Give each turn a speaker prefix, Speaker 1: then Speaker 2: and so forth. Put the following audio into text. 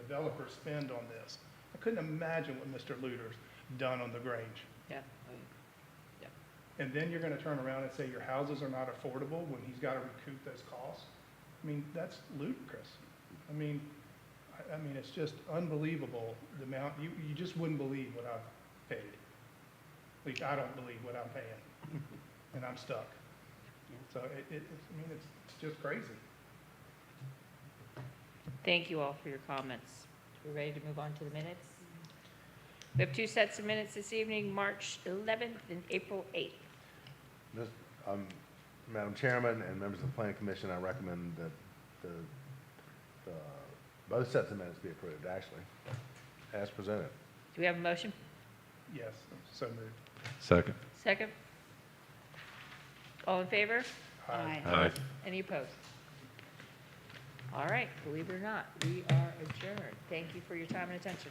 Speaker 1: developers spend on this. I couldn't imagine what Mr. Luter's done on the Grange.
Speaker 2: yeah.
Speaker 1: And then you're gonna turn around and say your houses are not affordable when he's gotta recoup those costs? I mean, that's ludicrous. I mean, I, I mean, it's just unbelievable, the amount, you, you just wouldn't believe what I've paid. At least I don't believe what I'm paying, and I'm stuck. So it, it, it's- I mean, it's, it's just crazy.
Speaker 2: Thank you all for your comments. We're ready to move on to the minutes. We have two sets of minutes this evening, March 11th and April 8th.
Speaker 3: Mis- um, Madam Chairman and members of the Planning Commission, I recommend that the, the, both sets of minutes be approved, actually, as presented.
Speaker 2: Do we have a motion?
Speaker 1: Yes, I'm so moved.
Speaker 4: Second.
Speaker 2: Second? All in favor?
Speaker 1: Aye.
Speaker 4: Aye.
Speaker 2: Any opposed? All right, believe it or not, we are adjourned. Thank you for your time and attention.